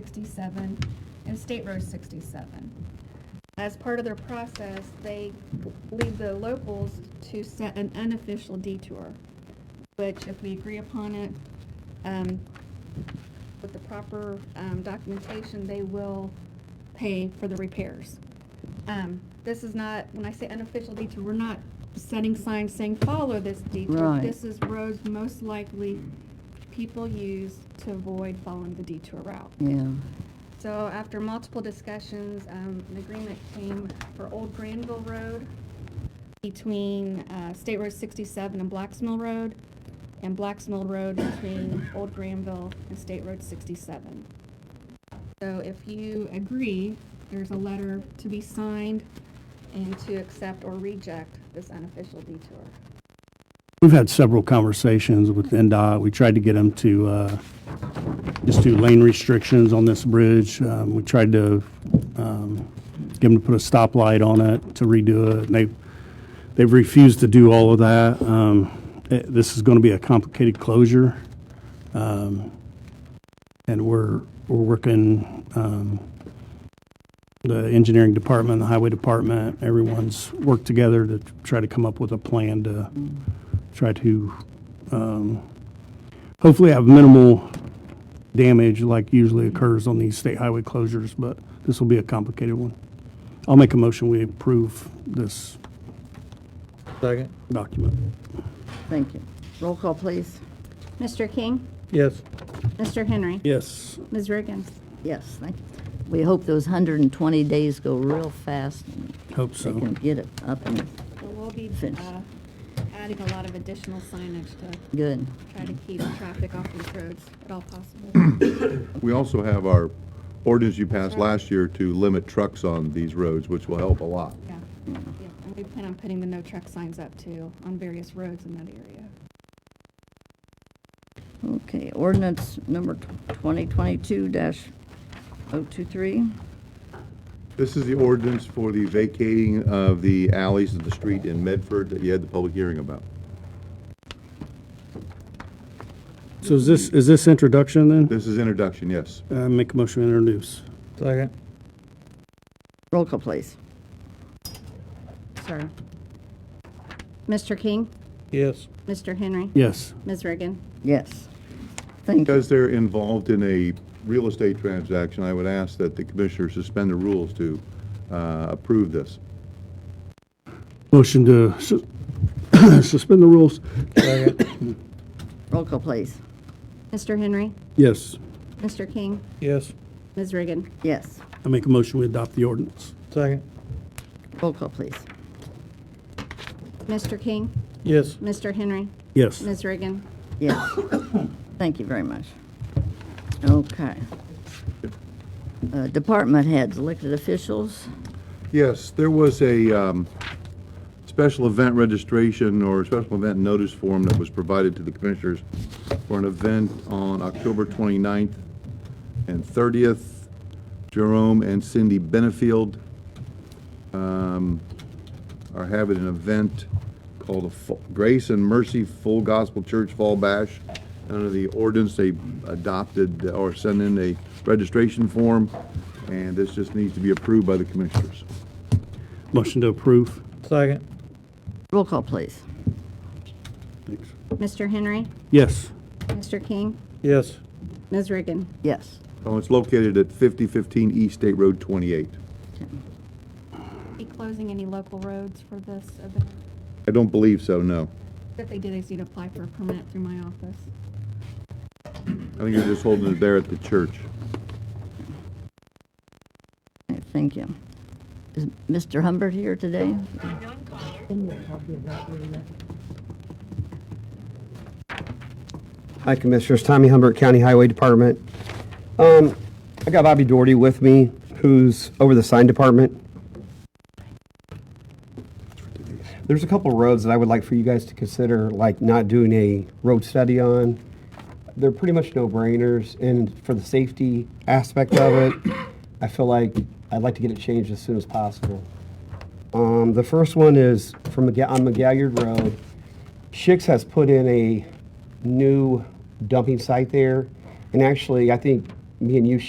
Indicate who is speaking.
Speaker 1: 167 and State Road 67. As part of their process, they leave the locals to set an unofficial detour, which if we agree upon it, um, with the proper um, documentation, they will pay for the repairs. Um, This is not, when I say unofficial detour, we're not setting signs saying, follow this detour.
Speaker 2: Right.
Speaker 1: This is roads most likely people use to avoid following the detour route.
Speaker 2: Yeah,
Speaker 1: So after multiple discussions, um, an agreement came for Old Granville Road between, uh, State Road sixty-seven and Blacks Mill Road, and Blacks Mill Road between Old Granville and State Road sixty-seven. So if you agree, there's a letter to be signed and to accept or reject this unofficial detour.
Speaker 3: We've had several conversations with NDOT. We tried to get them to uh, just do lane restrictions on this bridge. Um, We tried to um, get them to put a stoplight on it, to redo it, and they, they've refused to do all of that. Um, eh, This is going to be a complicated closure. Um, And we're, we're working, um, the engineering department, the highway department, everyone's worked together to try to come up with a plan to try to um, hopefully have minimal damage like usually occurs on these state highway closures, but this will be a complicated one. I'll make a motion, we approve this
Speaker 4: Second?
Speaker 3: document.
Speaker 2: thank you. Roll call, please.
Speaker 5: Mr. King?
Speaker 4: Yes.
Speaker 5: Mr. Henry?
Speaker 3: Yes.
Speaker 5: Ms. Riggins?
Speaker 2: Yes, thank you. We hope those 120 days go real fast and
Speaker 3: Hope
Speaker 2: they
Speaker 3: so.
Speaker 2: can get it up and
Speaker 1: So we'll be,
Speaker 2: Finished.
Speaker 1: uh, adding a lot of additional signage to
Speaker 2: good.
Speaker 1: try to keep traffic off these roads at all possible.
Speaker 6: We also have our ordinance you passed last year to limit trucks on these roads, which will help a lot.
Speaker 1: Yeah, yeah, and we plan on putting the no truck signs up too on various roads in that area.
Speaker 2: Okay, ordinance number 2022-023.
Speaker 6: This is the ordinance for the vacating of the alleys of the street in Medford that you had the public hearing about.
Speaker 3: So is this, is this introduction
Speaker 6: This is introduction, yes.
Speaker 3: then? Uh, Make a motion, to introduce.
Speaker 4: Second?
Speaker 2: Roll call, please.
Speaker 5: Sorry. Mr. King?
Speaker 4: Yes.
Speaker 5: Mr. Henry?
Speaker 3: Yes.
Speaker 5: Ms. Riggin?
Speaker 2: Yes. Thank you.
Speaker 6: Because they're involved in a real estate transaction, I would ask that the commissioner suspend the rules to uh, approve this.
Speaker 3: Motion to su- suspend the rules.
Speaker 4: Second?
Speaker 2: Roll call, please.
Speaker 5: Mr. Henry?
Speaker 3: Yes.
Speaker 5: Mr. King?
Speaker 4: Yes.
Speaker 5: Ms. Riggin?
Speaker 2: Yes.
Speaker 3: I make a motion, we adopt the ordinance.
Speaker 4: Second?
Speaker 2: Roll call, please.
Speaker 5: Mr. King?
Speaker 4: Yes.
Speaker 5: Mr. Henry?
Speaker 3: Yes.
Speaker 5: Ms. Riggin?
Speaker 2: Yes. Thank you very much. Okay. Uh, Department heads, elected officials.
Speaker 6: Yes, there was a um, special event registration or special event notice form that was provided to the commissioners for an event on October 29th and 30th, Jerome and Cindy Benefield um, are having an event called a Fu- Grace and Mercy Full Gospel Church Fall Bash. Under the ordinance, they adopted or sent in a registration form, and this just needs to be approved by the commissioners.
Speaker 3: Motion to approve.
Speaker 4: Second?
Speaker 2: Roll call, please.
Speaker 3: Thanks.
Speaker 5: Mr. Henry?
Speaker 3: Yes.
Speaker 5: Mr. King?
Speaker 4: Yes.
Speaker 5: Ms. Riggin?
Speaker 2: Yes.
Speaker 6: Oh, it's located at 5015 East State Road 28.
Speaker 1: Be closing any local roads for this event?
Speaker 6: I don't believe so, no.
Speaker 1: If they did, they just need to apply for a permit through my office.
Speaker 6: I think they're just holding it there at the church.
Speaker 2: Okay, Thank you. Is Mr. Humbert here today?
Speaker 7: Hi, Commissioners. Tommy Humbert, County Highway Department. Um, I got Bobby Doherty with me, who's over the sign department. There's a couple roads that I would like for you guys to consider, like not doing a road study on. They're pretty much no-brainers, and for the safety aspect of it, I feel like I'd like to get it changed as soon as possible. Um, the first one is from, McGa- on McGalliard Road. Shix has put in a new dumping site there. And actually, I think me and you